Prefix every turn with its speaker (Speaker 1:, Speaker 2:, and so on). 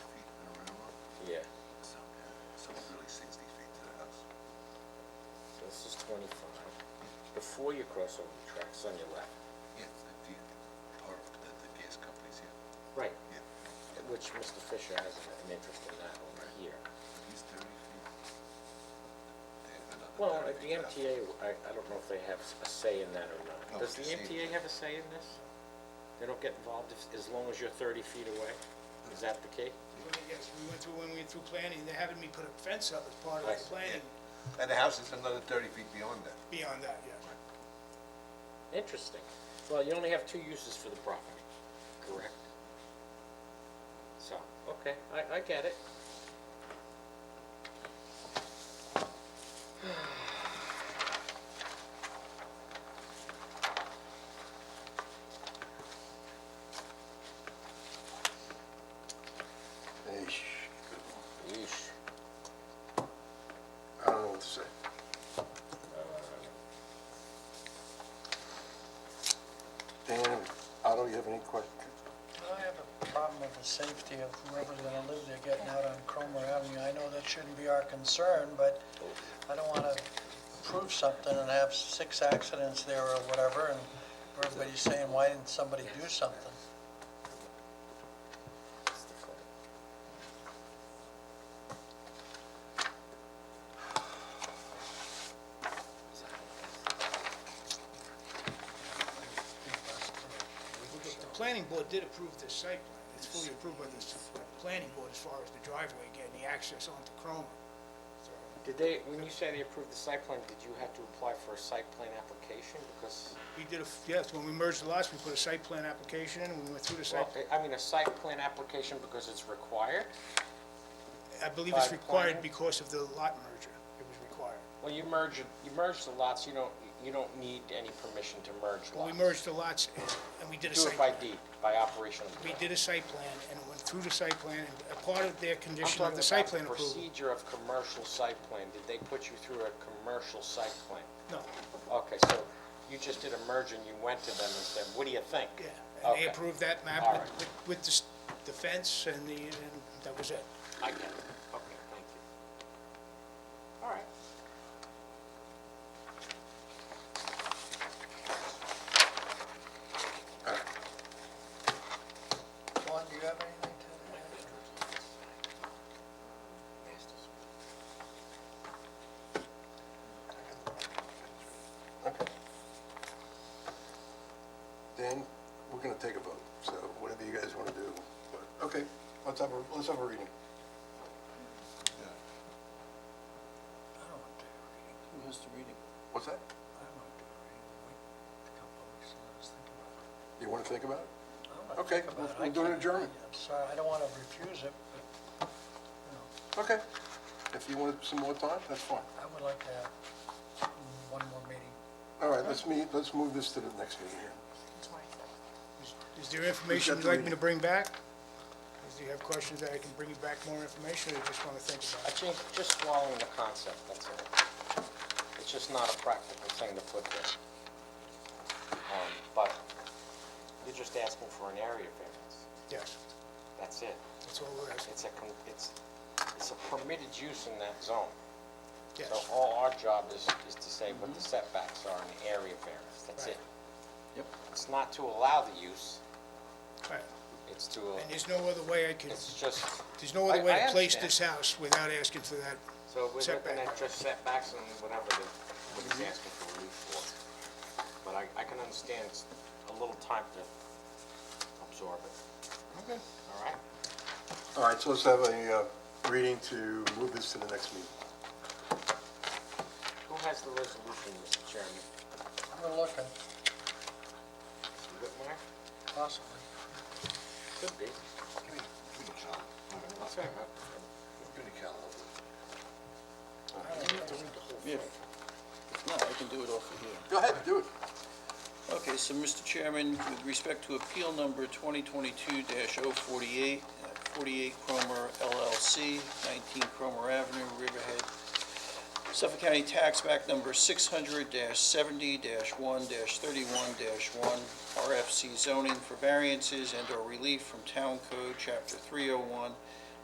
Speaker 1: twenty-five, before you cross over the tracks on your left.
Speaker 2: Yeah, the, the, or the, the gas companies here,
Speaker 1: Right.
Speaker 2: yeah,
Speaker 1: Which Mr. Fisher has an interest in that over here.
Speaker 2: at least thirty feet. They have another
Speaker 1: Well,
Speaker 2: 30
Speaker 1: uh, the
Speaker 2: feet up.
Speaker 1: MTA, I, I don't know if they have a say in that or
Speaker 2: No,
Speaker 1: not. Does the
Speaker 2: it's the same.
Speaker 1: MTA have a say in this? They don't get involved if- as long as you're thirty feet away? Is that the case?
Speaker 3: When they get- we went through, when we went through planning, they having me put a fence up as part of the
Speaker 1: Right,
Speaker 3: planning
Speaker 2: Yeah. And the house is another thirty feet beyond that.
Speaker 3: beyond that, yeah.
Speaker 1: Interesting. Well, you only have two uses for the property, correct? So, okay, I, I get it.
Speaker 4: Yeesh.
Speaker 1: Yeesh.
Speaker 4: I don't know what to say. Dan, Otto, you have any questions?
Speaker 5: I have a problem with the safety of whoever's gonna live there getting out on Cromer Avenue. I know that shouldn't be our concern, but I don't wanna approve something and have six accidents there or whatever, and everybody's saying, why didn't somebody do something?
Speaker 1: That's the point.
Speaker 3: The planning board did approve this site plan. It's fully approved by the s- planning board as far as the driveway getting the access onto Cromer. So,
Speaker 1: Did they, when you say they approved the site plan, did you have to apply for a site plan application? Because,
Speaker 3: We did, a f- yes, when we merged the lots, we put a site plan application in, we went through the site.
Speaker 1: well, I- I mean, a site plan application because it's required?
Speaker 3: I believe it's
Speaker 1: by planning?
Speaker 3: required because of the lot merger. It was required.
Speaker 1: Well, you merge, you merge the lots, you don't, you don't need any permission to merge lots.
Speaker 3: Well, we merged the lots and- and we did a
Speaker 1: Do
Speaker 3: site.
Speaker 1: it by deed, by operation of the
Speaker 3: We
Speaker 1: law.
Speaker 3: did a site plan and it went through the site plan and a part of their
Speaker 1: I'm
Speaker 3: condition of
Speaker 1: talking
Speaker 3: the site
Speaker 1: about the
Speaker 3: plan approval.
Speaker 1: procedure of commercial site plan. Did they put you through a commercial site plan?
Speaker 3: No,
Speaker 1: Okay, so you just did a merge and you went to them and said, what do you think?
Speaker 3: yeah. And they
Speaker 1: Okay,
Speaker 3: approved that map
Speaker 1: All
Speaker 3: with-
Speaker 1: right.
Speaker 3: with- with the s- the fence and the, and that was it.
Speaker 1: I get it. Okay, thank you. All right.
Speaker 5: Juan, do you have anything to add?
Speaker 4: Okay. Dan, we're gonna take a vote, so whatever you guys wanna do. but- Okay, let's have a, let's have a reading.
Speaker 2: Yeah.
Speaker 5: I don't want to do a reading.
Speaker 6: Who has to read it?
Speaker 4: What's that?
Speaker 5: I don't want to do a reading. Wait a couple of weeks and let us think about it.
Speaker 4: You wanna think about it?
Speaker 5: I don't wanna
Speaker 4: Okay,
Speaker 5: think about it.
Speaker 4: we'll
Speaker 5: I
Speaker 4: do an
Speaker 5: can't-
Speaker 4: adjournment.
Speaker 5: I'm sorry, I don't wanna refuse it, but, you know.
Speaker 4: Okay. If you want some more time, that's fine.
Speaker 5: I would like to have one more meeting.
Speaker 4: All right, let's meet, let's move this to the next meeting here.
Speaker 3: Is- Is there information
Speaker 4: got
Speaker 3: you'd
Speaker 4: the
Speaker 3: like me
Speaker 4: reading.
Speaker 3: to bring back? Is- Do you have questions that I can bring you back more information or you just want to think
Speaker 1: I
Speaker 3: about it?
Speaker 1: think just swallowing the concept, that's all. It's just not a practical thing to put there. Um, But you're just asking for an area variance.
Speaker 3: Yes,
Speaker 1: That's it.
Speaker 3: that's all we're asking,
Speaker 1: It's a, con- it's, it's a permitted use in that zone. So
Speaker 3: yes.
Speaker 1: all our job is, is to say what the setbacks are in the area variance, that's it.
Speaker 6: Yep.
Speaker 1: It's not to allow the use,
Speaker 3: Right.
Speaker 1: it's to,
Speaker 3: And there's no other way I can,
Speaker 1: it's just,
Speaker 3: there's no other way
Speaker 1: I- I
Speaker 3: to place
Speaker 1: understand.
Speaker 3: this house without asking for that.
Speaker 1: so we're looking
Speaker 3: Setback.
Speaker 1: at just setbacks and whatever the, what he's asking for relief for. But I, I can understand it's a little time to absorb it,
Speaker 3: Okay.
Speaker 1: all right?
Speaker 4: All right, so let's have a uh, reading to move this to the next meeting.
Speaker 1: Who has the resolution, Mr. Chairman?
Speaker 5: We're looking,
Speaker 1: Mr. Whitmire?
Speaker 5: possibly.
Speaker 1: Could be.
Speaker 2: Give me, give me Cal,
Speaker 1: That's all right.
Speaker 2: give me Cal.
Speaker 6: Yeah. No, I can do it off of here.
Speaker 4: Go ahead, do it.
Speaker 6: Okay, so, Mr. Chairman, with respect to appeal number 2022-048, uh, 48 Cromer LLC, 19 Cromer Avenue, Riverhead, Suffolk County Tax Act Number 600-70-1-31-1, RFC zoning for variances and/or relief from Town Code Chapter 301,